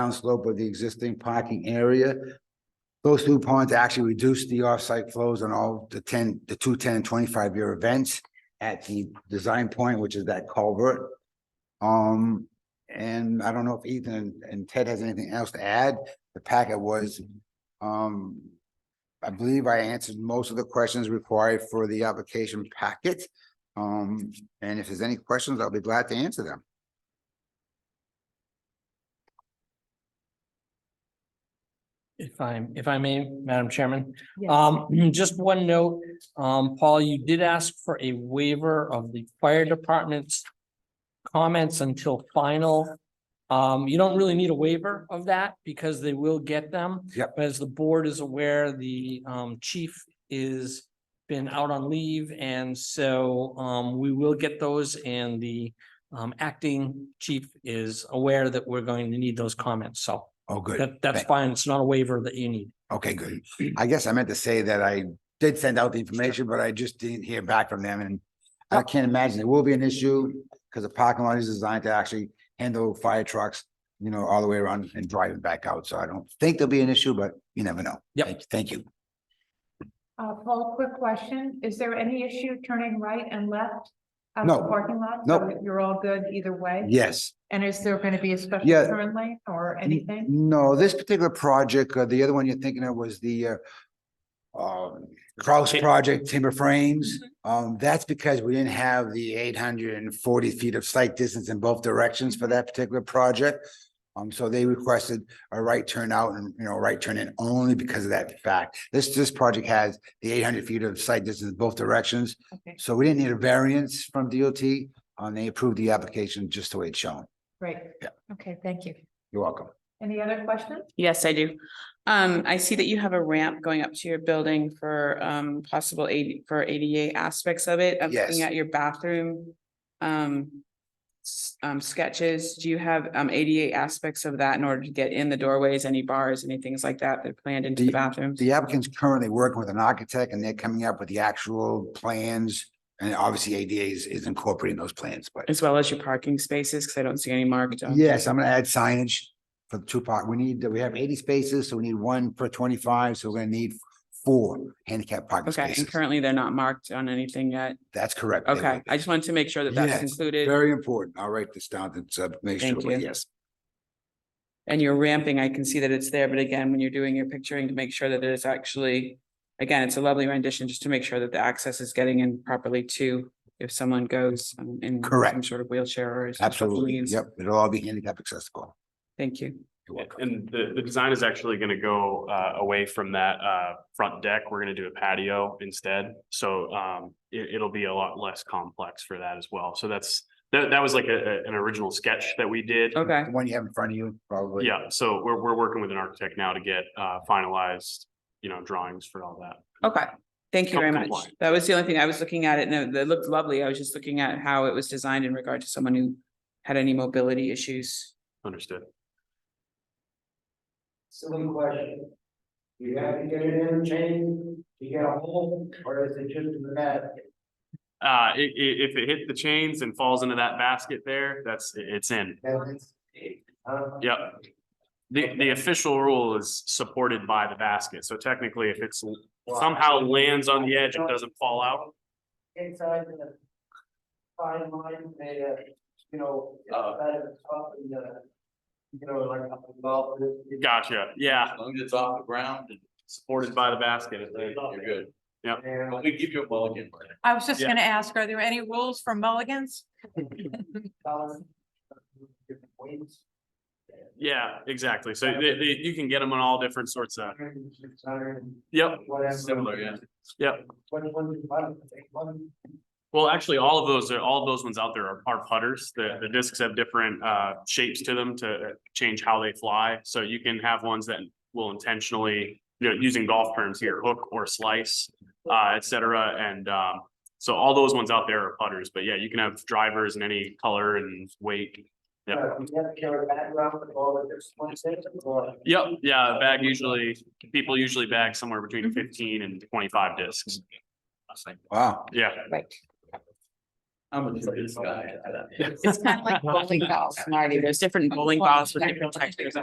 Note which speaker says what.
Speaker 1: downslope of the existing parking area. Those two ponds actually reduce the off-site flows on all the ten, the two, 10, and twenty-five-year events at the design point, which is that culvert. Um, and I don't know if Ethan and- and Ted has anything else to add. The packet was, um, I believe I answered most of the questions required for the application packet. Um, and if there's any questions, I'll be glad to answer them.
Speaker 2: If I, if I may, Madam Chairman,
Speaker 3: Yes.
Speaker 2: um, just one note, um, Paul, you did ask for a waiver of the fire department's comments until final. Um, you don't really need a waiver of that because they will get them.
Speaker 1: Yep.
Speaker 2: But As the board is aware, the, um, chief is been out on leave and so, um, we will get those and the, um, acting chief is aware that we're going to need those comments, so.
Speaker 1: Oh, good.
Speaker 2: That, that's
Speaker 1: Thank-
Speaker 2: fine. It's not a waiver that you need.
Speaker 1: Okay, good. I guess I meant to say that I did send out the information, but I just didn't hear back from them and I can't imagine it will be an issue because the parking lot is designed to actually handle fire trucks, you know, all the way around and driving back out. So I don't think there'll be an issue, but you never know.
Speaker 2: Yep.
Speaker 1: Thank- Thank you.
Speaker 3: Uh, Paul, quick question. Is there any issue turning right and left? out of
Speaker 1: No.
Speaker 3: the Parking lot?
Speaker 1: No.
Speaker 3: So You're all good either way?
Speaker 1: Yes.
Speaker 3: And is there going to be a special
Speaker 1: Yeah. Mm-hmm.
Speaker 3: turn lane or
Speaker 1: N-
Speaker 3: anything?
Speaker 1: No, this particular project, uh, the other one you're thinking of was the uh, um, Kraus project, timber frames. Um, that's because we didn't have the eight hundred and forty feet of site distance in both directions for that particular project. Um, so they requested a right turn out and, you know, right turn in only because of that fact. This, this project has the eight hundred feet of site distance in both directions.
Speaker 3: Okay,
Speaker 1: So we didn't need a variance from DOT, and Um, they approved the application just the way it's shown.
Speaker 3: great.
Speaker 1: Yeah.
Speaker 3: Okay, thank you.
Speaker 1: You're welcome.
Speaker 3: Any other questions?
Speaker 4: Yes, I do. Um, I see that you have a ramp going up to your building for um possible AD for ADA aspects of it. I'm
Speaker 1: Yes.
Speaker 4: looking at your bathroom. Um. s- um, sketches, do you have um ADA aspects of that in order to get in the doorways, any bars, any things like that that are planned into
Speaker 1: The-
Speaker 4: the bathrooms?
Speaker 1: The applicant's currently working with an architect and they're coming up with the actual plans. And obviously ADA is, is incorporating those plans, but
Speaker 4: As well as your parking spaces, because I don't see any marked. um,
Speaker 1: yes, I'm gonna add signage for the two park. We need, we have eighty spaces, so we need one per twenty-five, so we're gonna need four handicap parking
Speaker 4: Okay, and
Speaker 1: spaces.
Speaker 4: currently they're not marked on anything yet.
Speaker 1: That's correct. They will
Speaker 4: Okay,
Speaker 1: be.
Speaker 4: I just wanted to make sure that that's
Speaker 1: Yes,
Speaker 4: included.
Speaker 1: Very important. I'll write this down and uh, make sure,
Speaker 4: Thank you.
Speaker 1: yes.
Speaker 4: And you're ramping, I can see that it's there, but again, when you're doing your picturing to make sure that it is actually. Again, it's a lovely rendition, just to make sure that the access is getting in properly too, if someone goes um, in. Some
Speaker 1: Correct.
Speaker 4: sort of wheelchair or. some sort of
Speaker 1: Absolutely.
Speaker 4: means.
Speaker 1: Yep, it'll all be handicap accessible.
Speaker 4: Thank you.
Speaker 1: You're
Speaker 5: And-
Speaker 1: welcome.
Speaker 5: And the, the design is actually gonna go, uh, away from that, uh, front deck. We're gonna do a patio instead. So, um, it, it'll be a lot less complex for that as well. So that's, that, that was like a, a- an original sketch that we did.
Speaker 4: Okay,
Speaker 1: The one you have in front of you, probably.
Speaker 5: Yeah, so we're, we're working with an architect now to get, uh, finalized, you know, drawings for all that.
Speaker 4: okay. Thank you very much.
Speaker 5: Compliant.
Speaker 4: That was the only thing I was looking at it and it looked lovely. I was just looking at how it was designed in regard to someone who had any mobility issues.
Speaker 5: Understood.
Speaker 6: Silly question. Do you have to get an interchange to get a hole, or is it just in the net?
Speaker 5: Uh, i- i- if it hit the chains and falls into that basket there, that's, it's in. Yep. The, the official rule is supported by the basket, so technically if it's somehow lands on the edge and doesn't fall out.
Speaker 6: Inside the fine line, they, uh, you know,
Speaker 5: Uh.
Speaker 6: outside of the top and the, you know, like up above. it- it-
Speaker 5: Gotcha, yeah,
Speaker 7: As long as it's off the ground and
Speaker 5: supported by the basket.
Speaker 7: you're good.
Speaker 6: there.
Speaker 7: But we give you a mulligan.
Speaker 3: I was just
Speaker 5: Yeah.
Speaker 3: going to ask, are there any rules for mulligans?
Speaker 6: Colors, different weights,
Speaker 5: Yeah, exactly. So they, they, you can get them on all different sorts of,
Speaker 6: 100, 600,
Speaker 5: yep,
Speaker 6: Whatever.
Speaker 7: Similar, yeah.
Speaker 5: yep.
Speaker 6: Which one do you want? Take one?
Speaker 5: Well, actually, all of those are, all of those ones out there are- are putters. The, the discs have different, uh, shapes to them to change how they fly. So you can have ones that will intentionally, you know, using golf terms here, hook or slice, uh, et cetera. And, um, so all those ones out there are putters, but yeah, you can have drivers in any color and weight. Yep.
Speaker 6: Uh, You have to carry a background with all the different ones in it, or?
Speaker 5: Yep, yeah, a bag usually, people usually bag somewhere between fifteen and twenty-five discs.
Speaker 1: Wow.
Speaker 5: Yeah.
Speaker 4: Right.
Speaker 7: I'm a good guy.
Speaker 4: It's kind of like bowling balls, Marty. There's different bowling balls with different textures.